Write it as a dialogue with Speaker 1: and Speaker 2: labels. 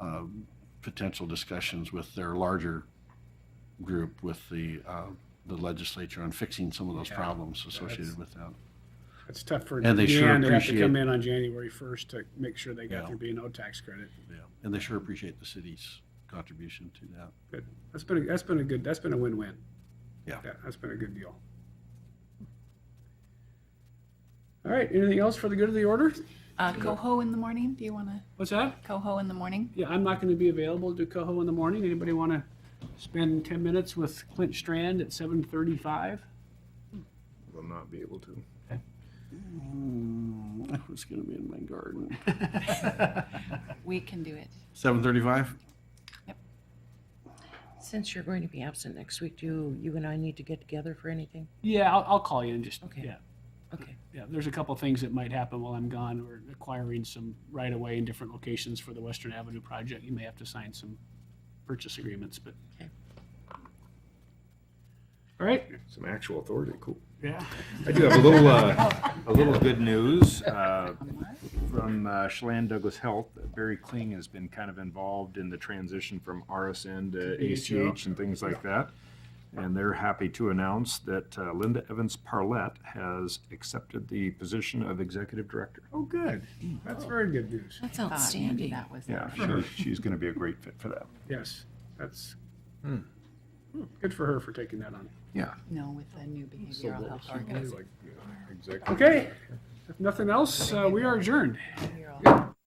Speaker 1: um, potential discussions with their larger group, with the, uh, the legislature on fixing some of those
Speaker 2: Yeah,
Speaker 1: problems associated
Speaker 2: that's-
Speaker 1: with that.
Speaker 2: It's tough for
Speaker 1: And they sure
Speaker 2: Deanne to have to
Speaker 1: appreciate-
Speaker 2: come in on January first to make sure they
Speaker 1: Yeah.
Speaker 2: got their B and O tax credit.
Speaker 1: Yeah, And they sure appreciate the city's contribution to that.
Speaker 2: Good. That's been, a- that's been a good, that's been a win-win.
Speaker 1: Yeah.
Speaker 2: That's been a good deal. All right, anything else for the good of the order?
Speaker 3: Uh, coho in the morning? Do you want to
Speaker 2: What's that?
Speaker 3: coho in the morning?
Speaker 2: Yeah, I'm not gonna be available to Coho in the morning. Anybody wanna spend ten minutes with Clint Strand at seven thirty-five?
Speaker 4: will not be able to.
Speaker 1: Hmm, I was gonna be in my garden.
Speaker 3: We can do it.
Speaker 1: Seven thirty-five?
Speaker 5: Since you're going to be absent next week, do you and I need to get together for anything?
Speaker 2: Yeah, I'll, I'll call you and just,
Speaker 5: Okay.
Speaker 2: yeah,
Speaker 5: Okay.
Speaker 2: yeah. There's a couple things that might happen while I'm gone. We're acquiring some right-of-way in different locations for the Western Avenue project. You may have to sign some purchase agreements, but.
Speaker 5: Okay.
Speaker 2: All right,
Speaker 4: Some actual authority, cool.
Speaker 2: yeah.
Speaker 4: I do have a little, uh, a little good news uh, from uh, Chelan Douglas Health. Barry Kling has been kind of involved in the transition from RSN
Speaker 2: AHL.
Speaker 4: to ACH and things like that. And they're happy to announce that uh, Linda Evans Parlett has accepted the position of Executive Director.
Speaker 2: Oh, good. That's very good news.
Speaker 5: That's
Speaker 3: Thought maybe
Speaker 5: outstanding.
Speaker 3: That was.
Speaker 4: Yeah, sure. She's going to be a great fit for that.
Speaker 2: Yes, that's, Hmm, good for her for taking that on.
Speaker 4: Yeah.
Speaker 3: No, with the new behavioral health organization.
Speaker 2: Okay, if nothing else, uh, we are adjourned.
Speaker 3: here.